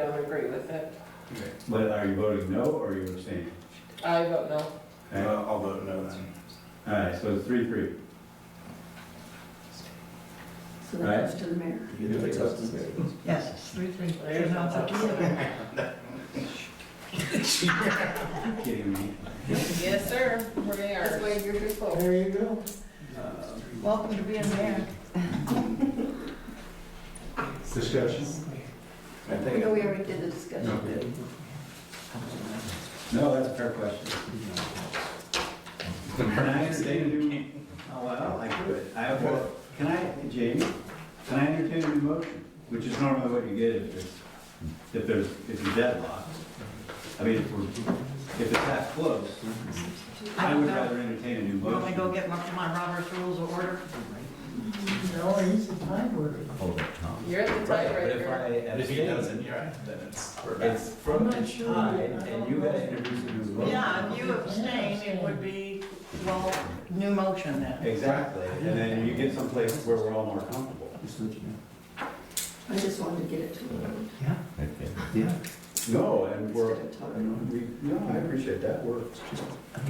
I don't agree with it. But are you voting no or are you abstaining? I vote no. Okay. All I'll vote no then. right, so it's three, three. So that goes to the mayor. Yes, three, three. There's no Yeah. Kidding me? Yes, sir, we That's are. why you're here for. There you go. Welcome to being mayor. Discussion? I think. No, we already did the discussion. No, that's a fair question. Can I entertain a new, oh, well, I could. I have, a- can I, Jamie, can I entertain a new motion? Which is normally what you get if there's, if there's, if you're deadlocked. I mean, if we're, if it's that close, I I don't would know. rather entertain a new You want me to go motion. get my, my Robert's Rules of Order? No, he's a time warrior. You're the But if tiebreaker. I abstain, yeah, then it's, we're back. It's from I'm the not sure. time, and you gotta introduce a new motion. Yeah, if you abstain, it would be, well, new motion then. Exactly, and then you get someplace where we're all more comfortable. I just wanted to get it to him. No, and instead we're, of talking. and we, no, I appreciate that, we're,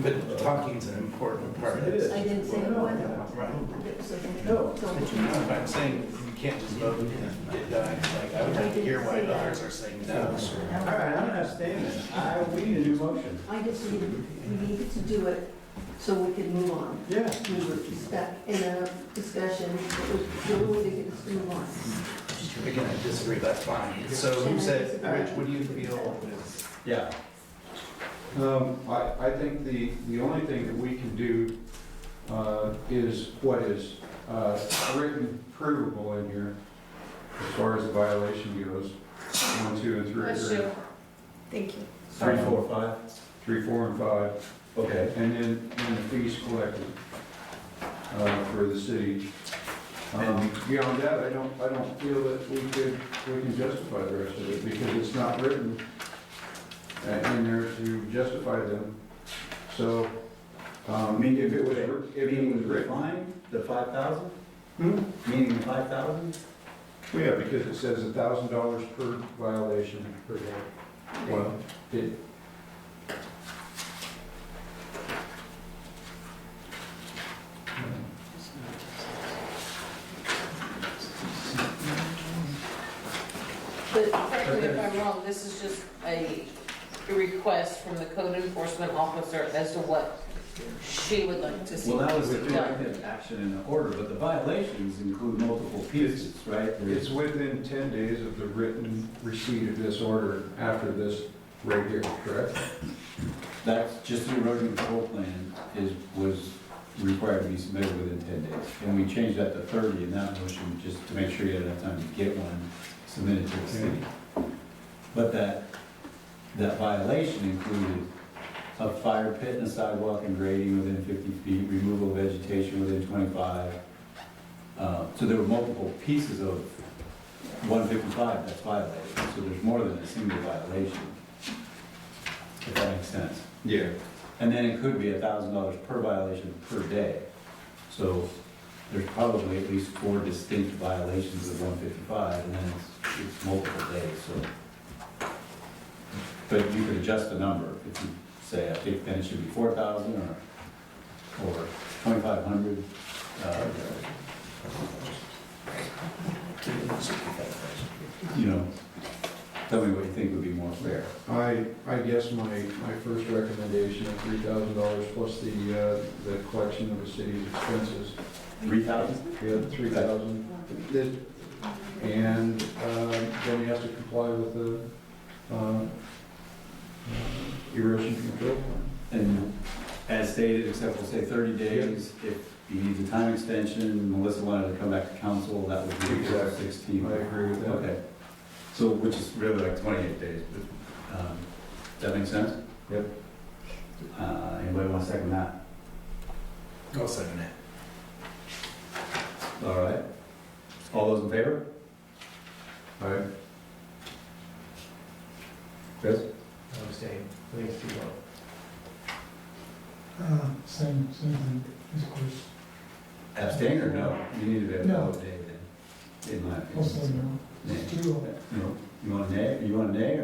But talking's an important part. It is. I didn't say it wasn't. Right. I didn't say it. No. Tell the But you know, truth. if I'm saying you can't just vote and get done, like, I would like to hear why others are saying no. all right, I'm not staying there. I, we need a new motion. I just needed, we needed to do it so we could move on. Yeah. We were stuck in a discussion, it was the only thing that could move on. Again, I disagree, that's fine. So who said, Rich, what do you feel is? Yeah. Um, I, I think the, the only thing that we can do, uh, is what is, uh, written provable in here as far as the violation goes, one, two, and three, Bless three, you. Thank you. Three, four, five, three, four, and five, okay. and then, and the fees collected, uh, for the city. Um, beyond that, I don't, I don't feel that we could, we can justify the rest of it, because it's not written uh, in there to justify them. So, um, if it was, writ- if it was written, Fine, the five thousand, Hmm? meaning the five thousand? Well, yeah, because it says a thousand dollars per violation per day. Well, it, But correct me if I'm wrong, this is just a request from the code enforcement officer as to what she would like to see. Well, that was the done. corrective action in the order, but the violations include multiple pieces, right? it's within ten days of the written receipt of this order after this right here, correct? That's just the erosion control plan is, was required to be submitted within ten days. And we changed that to thirty in that motion, just to make sure you had enough time to get one submitted to the city. But that, that violation included a fire pit and a sidewalk and grading within fifty feet, removal of vegetation within twenty-five. Uh, so there were multiple pieces of one fifty-five that's violated, so there's more than a single violation. If that makes sense. Yeah. And then it could be a thousand dollars per violation per day. So there's probably at least four distinct violations of one fifty-five, and then it's, it's multiple days, so. But you could adjust the number, if you say, I think then it should be four thousand or, or twenty-five hundred. uh, You know, tell me what you think would be more fair. I, I guess my, my first recommendation of three thousand dollars plus the, uh, the collection of the city's expenses, Three thousand? we had three thousand. And, um, then he has to comply with the, um, uh, erosion control plan. And as stated, except we'll say 30 days, if you need the time extension, Melissa wanted to come back to council, that would be April Exactly. 16. I agree with that. Okay. So, which is really like 28 days, but, um, does that make sense? Yep. Uh, Anybody want to second that? I'll second it. All right. All those in favor? Aye. Chris? I'm staying. Please, you vote. Uh, Same, same thing, of course. Abstain or no? You need to be a No. vote, Dave, then, in my Also, opinion. no, Yeah. it's two of them. No. You want a nay, you want a nay, or